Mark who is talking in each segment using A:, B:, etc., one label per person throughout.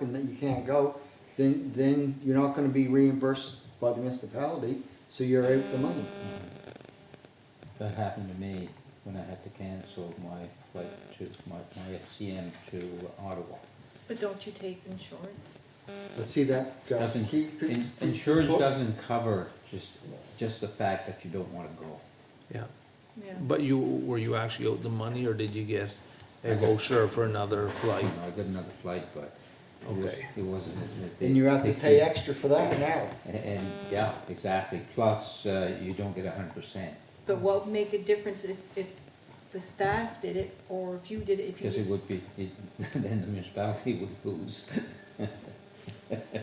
A: and that you can't go, then, then you're not gonna be reimbursed by the municipality, so you're out the money.
B: That happened to me when I had to cancel my flight to, my, my FCM to Ottawa.
C: But don't you take insurance?
A: But see that, guys,
B: Doesn't-
A: keep. keep-
B: in- Insurance
A: keep-
B: doesn't cover just, just the fact that you don't wanna go.
D: Yeah,
C: Yeah.
D: but you, were you actually owed the money or did you get
B: I
D: a
B: got-
D: voucher for another
B: You
D: flight?
B: know, I got another flight, but it was,
D: Okay.
B: it wasn't. it- it-
A: And you have to
B: they-
A: pay
B: they-
A: extra for that now.
B: And, and, yeah, exactly, plus, uh, you don't get a hundred percent,
C: But what would make a difference if, if the staff did it, or if you did it, if you
B: because it
C: just,
B: would be, it- then the municipality would lose.
C: that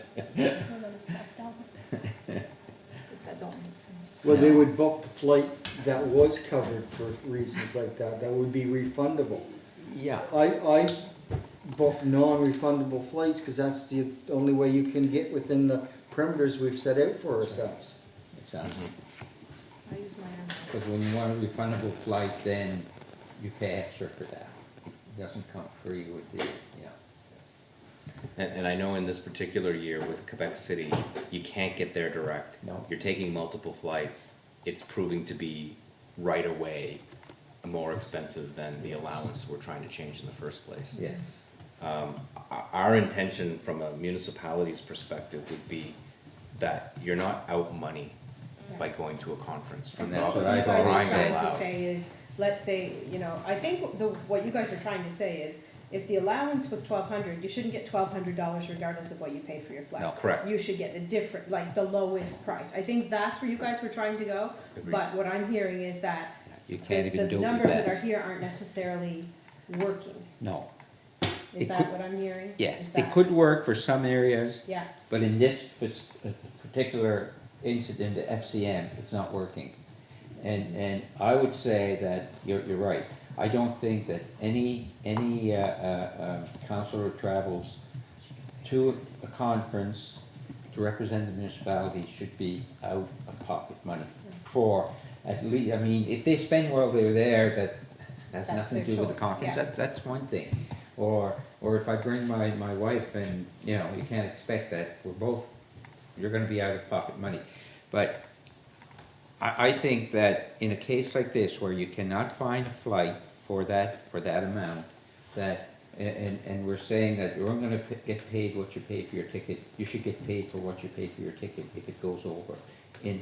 C: don't make sense.
A: Well, they would book the flight that was covered for reasons like that, that would be refundable.
B: Yeah,
A: I, I book non-refundable flights, cause that's the only way you can get within the perimeters we've set out for ourselves.
B: exactly,
C: I use my own.
B: because when you want a refundable flight, then you pay extra for that, it doesn't come free with the, yeah.
E: And, and I know in this particular year with Quebec City, you can't get there direct.
B: No.
E: You're taking multiple flights. It's proving to be right away more expensive than the allowance we're trying to change in the first place.
B: Yes,
E: Our, our intention from a municipality's perspective would be that you're not out money by going to a conference.
B: And
E: from
B: that's
E: the-
B: what I
F: you guys
B: Crying
F: are
B: out
F: trying to
E: loud.
F: say is, let's say, you know, I think the, what you guys are trying to say is, if the allowance was twelve hundred, you shouldn't get twelve hundred dollars regardless of what you pay for your flight.
E: No, correct.
F: You should get the different, like, the lowest price, I think that's where you guys were trying to go,
E: Agreed.
F: but what I'm hearing is that
B: you can't
F: the,
B: even
F: the
B: do it
F: numbers
B: with
F: that are
B: that,
F: here aren't necessarily working,
B: no, It
F: is
B: could-
F: that what I'm hearing? Is
B: yes, it
F: that-
B: could work for some areas.
F: Yeah,
B: But in this pers- uh, particular incident at FCM, it's not working. And, and I would say that you're, you're right. I don't think that any, any uh, uh, um, counselor travels to a conference to represent the municipality should be out of pocket money for at least, I mean, if they spend while they're there, that has
F: That's
B: nothing to
F: their
B: do with the
F: choice,
B: conference.
F: yeah.
B: That, that's one thing. Or, or if I bring my, my wife and, you know, you can't expect that, we're both, you're gonna be out of pocket money. But I, I think that in a case like this, where you cannot find a flight for that, for that amount, that, and- and, and we're saying that you're only gonna p- get paid what you pay for your ticket, you should get paid for what you pay for your ticket if it goes over. And,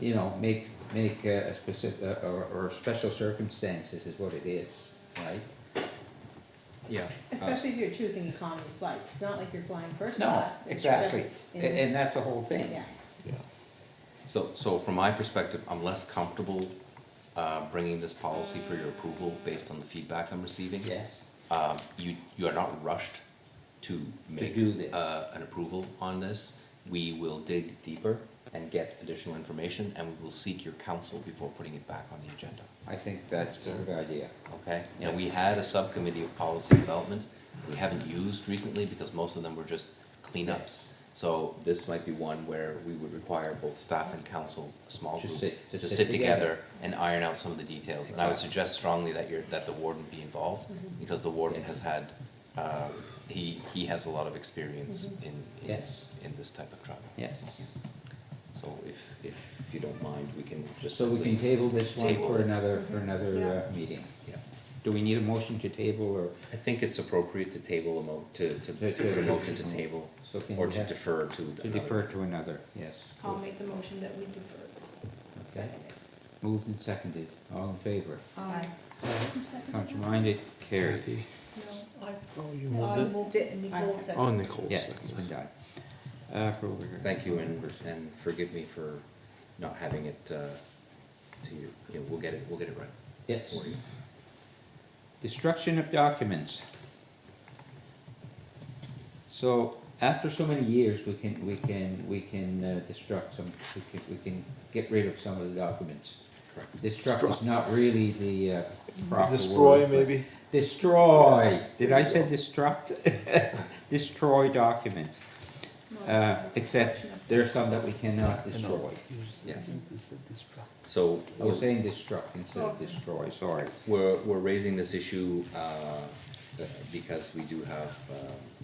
B: you know, make, make a specific, or, or special circumstances is what it is, right?
E: Yeah. Uh,
F: especially if you're choosing economy flights, it's not like you're flying first
B: No,
F: class, it's
B: exactly,
F: just in
B: and,
F: this-
B: and that's the whole thing.
F: Yeah.
E: So, so from my perspective, I'm less comfortable, uh, bringing this policy for your approval based on the feedback I'm receiving.
B: Yes,
E: um, you, you are not rushed to make.
B: do this.
E: Uh, an approval on this. We will dig deeper and get additional information, and we will seek your counsel before putting it back on the agenda,
B: I think that's a good idea.
E: okay? And we had a subcommittee of policy development, we haven't used recently because most of them were just cleanups. So this might be one where we would require both staff and council, a small
B: Just
E: group,
B: sit-
E: to sit together and iron out some of the details. And I would
B: Exactly.
E: suggest strongly that you're, that the warden be involved,
F: Mm-hmm.
E: because the warden has had, uh, he, he has a lot of experience in, in,
B: Mm-hmm. Yes.
E: in this type of travel.
B: Yes.
E: So if, if you don't mind, we can just.
B: So we can
E: simply-
B: table this one
E: Table
B: for
E: this.
B: another, for another
F: Yeah.
B: uh, meeting.
E: Yeah.
B: Do we need a motion to table or,
E: I think it's appropriate to table a mo, to, to,
B: To-
E: to
B: to-
E: put a motion to table,
B: so can
E: or
B: we
E: to
B: have-
E: defer to.
B: to
E: another-
B: defer to another, yes.
C: I'll make the motion that we defer this.
B: Okay. Moved and seconded, all in favor?
C: Aye.
B: Contrary minded, carried.
D: Kathy?
C: No,
D: Oh, you
C: I, I
D: moved it?
C: moved it and
F: I
C: Nicole
F: second.
D: Oh,
C: seconded.
D: Nicole.
B: Yes, it's been done. Uh, for over-
E: Thank you, and, and forgive me for not having it, uh, to you, Yeah, we'll get it, we'll get it right
B: Yes.
E: for you.
B: Destruction of documents. So after so many years, we can, we can, we can uh, destruct some, we can, we can get rid of some of the documents.
E: Correct.
B: Destruct is not really the uh, proper word.
D: Destroy
B: but-
D: maybe?
B: Destroy, did I say destruct? Destroy documents,
C: No, it's
B: uh,
C: not.
B: except there are some that we cannot destroy.
E: Yes. So
B: I
E: we're,
B: was saying destruct instead of destroy, sorry.
E: we're, we're raising this issue, uh, because we uh, do have, um,